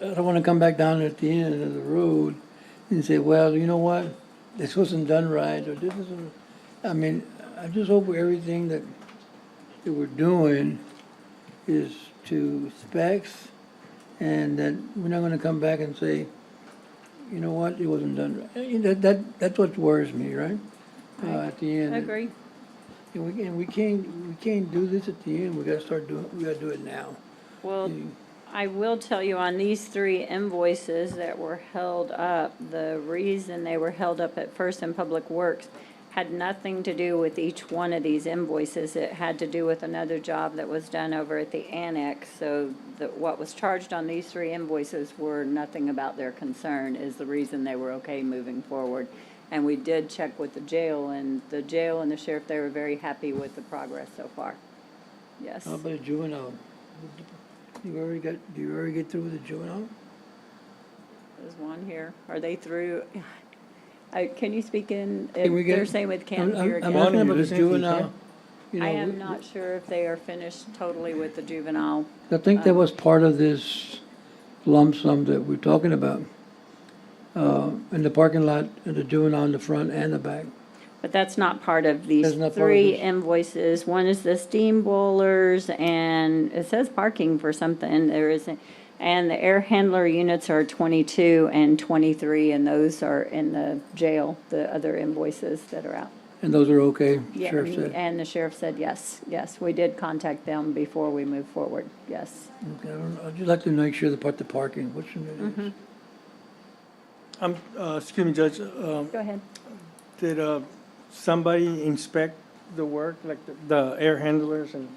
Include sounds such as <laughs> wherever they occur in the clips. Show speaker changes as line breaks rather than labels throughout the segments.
I don't wanna come back down at the end of the road and say, well, you know what? This wasn't done right, or this isn't, I mean, I just hope everything that, that we're doing is to specs, and that we're not gonna come back and say, you know what, it wasn't done right. Eh, That, that, that's what worries me, right? Uh, at the end.
I agree.
And we, and we can't, we can't do this at the end, we gotta start doing, we gotta do it now.
Well, I will tell you on these three invoices that were held up, the reason they were held up at first in Public Works had nothing to do with each one of these invoices. It had to do with another job that was done over at the annex. So the what was charged on these three invoices were nothing about their concern is the reason they were okay moving forward. And we did check with the jail and the jail and the sheriff, they were very happy with the progress so far. Yes.
How about juvenile? You already got, do you already get through with the juvenile?
There's one here. Are they through? Uh, Can you speak in,
Can we
if
get-
they're saying with
I'm-
Camp here
I'm I'm
again?
asking
One
about the
is empty,
juvenile. You
I
know,
am
we-
not sure if they are finished totally with the juvenile.
I think
uh,
that was part of this lump sum that we're talking about. Uh, in the parking lot, in the juvenile in the front and the back.
But that's not part of these
That's not part of
three
this.
invoices. One is the steam boilers and it says parking for something. There isn't. And the air handler units are twenty-two and twenty-three and those are in the jail, the other invoices that are out.
And those are okay,
Yeah,
sheriff said.
and the sheriff said yes, yes, we did contact them before we moved forward, yes.
Okay, I don't- I'd just like to make sure the part, the parking, what's the name? is?
Mm-hmm.
Um, uh, excuse me, Judge, um,
Go ahead.
did, uh, somebody inspect the work, like the, the air handlers and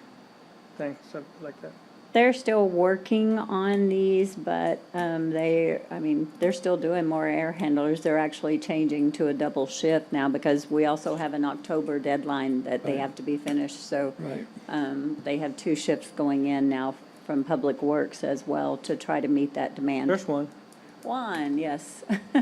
things stuff like that?
They're still working on these, but um, they, I mean, they're still doing more air handlers. They're actually changing to a double shift now because we also have an October deadline that
Oh,
they have to be finished. So
Right.
um, they have two shifts going in now from Public Works as well to try to meet that demand.
There's one.
One, yes. <laughs>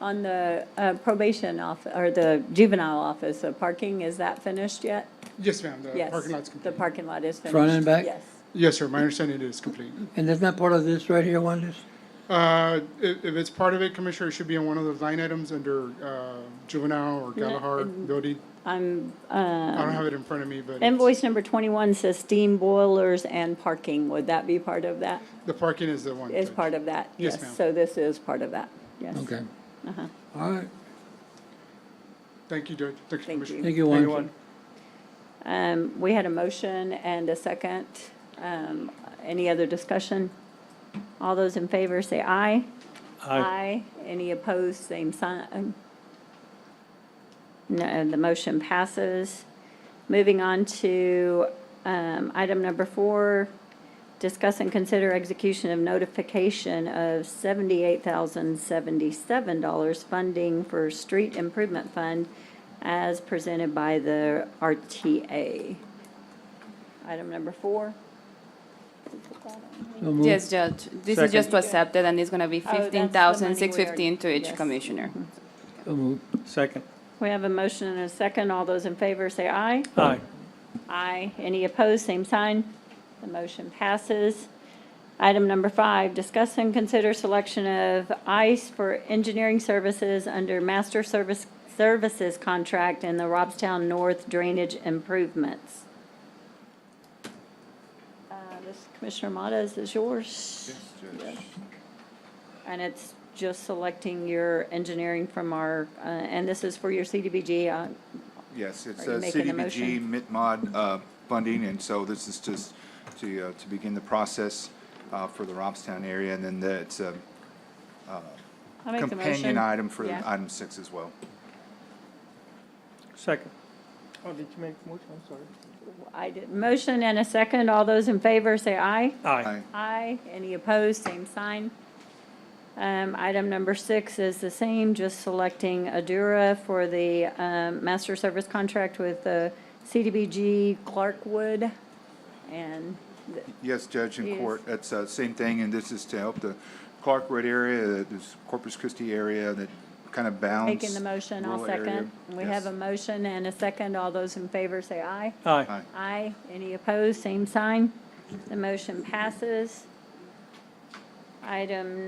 On the uh, probation off, or the juvenile office, the parking, is that finished yet?
Yes, ma'am, the
Yes.
Uh, parking lot's
The
complete.
parking lot is finished.
Front and back?
Yes.
Yes, sir, my understanding it is complete.
And that's not part of this right here, Wanda's?
Uh, If if it's part of it, Commissioner, it should be on one of those line items under uh, juvenile or Galahad building.
I'm,
I
uh,
don't have it in front of me, but it's-
invoice number twenty-one says steam boilers and parking. Would that be part of that?
the parking is the one.
Is
Judge.
part of that?
Yes, ma'am.
So this is part of that, yes.
Okay.
Uh-huh.
All right,
Thank you, Judge. Thank you,
Thank
Commissioner.
thank you,
Thank you,
Wanda.
Wanda.
Um, we had a motion and a second. Um, any other discussion? All those in favor say aye.
Aye.
Any opposed, same sign? No, the motion passes. Moving on to um, item number four, discuss and consider execution of notification of $78,077 funding for street improvement fund as presented by the RTA. Item number four.
So moved.
Yes, Judge, this is just to accept it, and it's gonna be
Oh, that's the
fifteen thousand,
money we
six fifteen to
already-
each
yes.
commissioner.
So moved.
Second.
We have a motion and a second. All those in favor say aye.
Aye.
Aye. Any opposed, same sign. The motion passes. Item number five, discuss and consider selection of ICE for engineering services under master service, services contract in the Robstown North Drainage Improvements. Uh, This, Commissioner Mata, is this yours? Yes. And it's just selecting your engineering from our, uh, and this is for your CDBG, uh,
Yes, it's
Are you
uh,
making a
CDBG MITMOD uh, funding, and so this is just to, uh, to begin the process uh, for the Robstown area, and then the- it's a
I make the motion.
companion item for
Yeah.
item six as well.
Second. Oh, did you make a motion? I'm sorry.
I did, motion and a second, all those in favor say aye.
Uh,
Aye.
Aye, any opposed, same sign. Um, item number six is the same, just selecting Adura for the, um, master service contract with, uh, CDBG Clarkwood. And, th-
Yes, Judge
Yes.
and Court, that's the same thing, and this is to help the Clark Road area, uh, this Corpus Christi area that kind of bounds.
taking the motion, I'll
rural area.
second. We have a
Yes.
motion and a second, all those in favor say aye.
Aye.
Aye.
Aye. Any opposed, same sign. The motion passes. Item